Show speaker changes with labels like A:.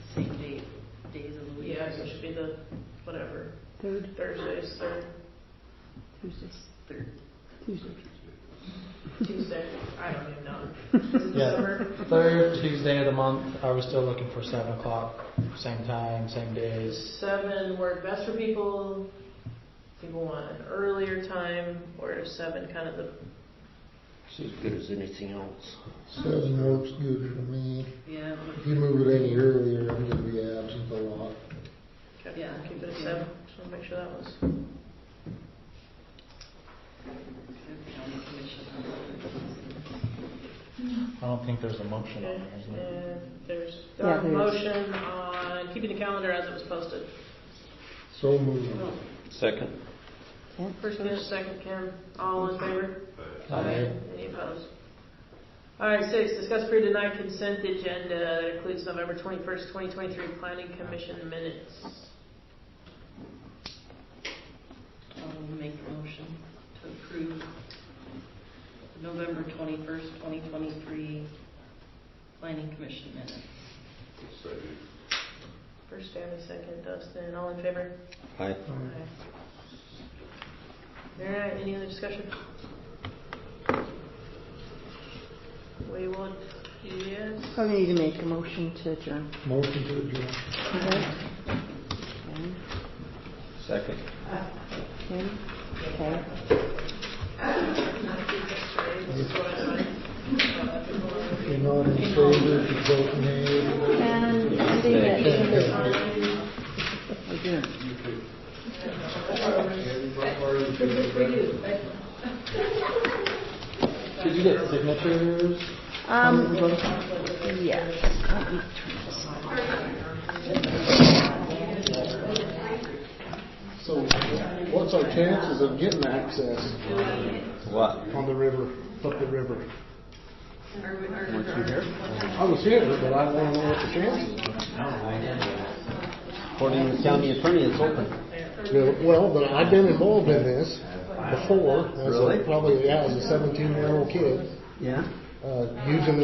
A: guys, it should be the, whatever,
B: Third,
A: Thursdays, third,
B: Tuesdays,
A: third,
B: Tuesday.
A: Tuesday, I don't even know. Is it
C: Yeah.
A: December?
C: Third Tuesday of the month, are we still looking for seven o'clock? Same time, same days?
A: Seven work best for people, people want an earlier time, or is seven kind of the,
D: It's as good as anything else.
E: Seven works good for me.
F: Yeah,
E: If you move it any earlier, I'm gonna be absent a lot.
A: okay,
F: Yeah.
A: keep it at seven, just wanna make sure that was.
C: I don't think there's a motion on there, is there?
A: And there's,
B: Yeah,
A: there a
B: there is.
A: motion on keeping the calendar as it was posted.
E: So moved.
D: Second?
B: Yeah.
A: First and a second, Kim, all in favor?
C: Aye.
A: Any opposed? All right, six, discuss for deny consent agenda that includes November twenty-first, twenty twenty-three planning commission minutes.
F: I'll make a motion to approve November 21st, 2023 Planning Commission minutes.
A: First Stanley, second Dustin, all in favor?
D: Aye.
A: All right, any other discussion? We will, yes,
B: I need to make a motion to adjourn.
E: Motion to adjourn.
B: Okay. Kim,
D: Second.
B: Kim, okay.
A: this is what I
E: If
A: signed.
E: you're not in favor, if you vote nay,
B: And ending
E: you
B: at
E: can't have it.
B: adjourn.
C: Did you get signatures?
B: Um, yes. Let me turn this on.
E: So what's our chances of getting access
D: What?
E: on the river, up the river? I was here, but I don't know what the chances are.
D: According to the county attorney, it's open.
E: Yeah, Well, but I've been involved in this before, as a-
D: Really?
E: probably, yeah, as a seventeen-year-old kid,
D: Yeah?
E: uh, using